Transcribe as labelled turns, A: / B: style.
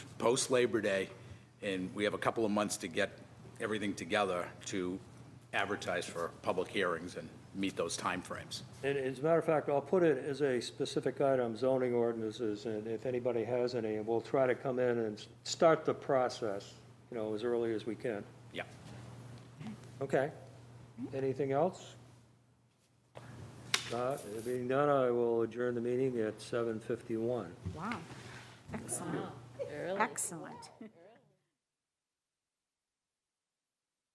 A: post-Labor Day, and we have a couple of months to get everything together to advertise for public hearings and meet those timeframes.
B: And as a matter of fact, I'll put it as a specific item, zoning ordinances, and if anybody has any, we'll try to come in and s- start the process, you know, as early as we can.
A: Yeah.
B: Okay. Anything else? Uh, Being done, I will adjourn the meeting at 7:51.
C: Wow, excellent, excellent.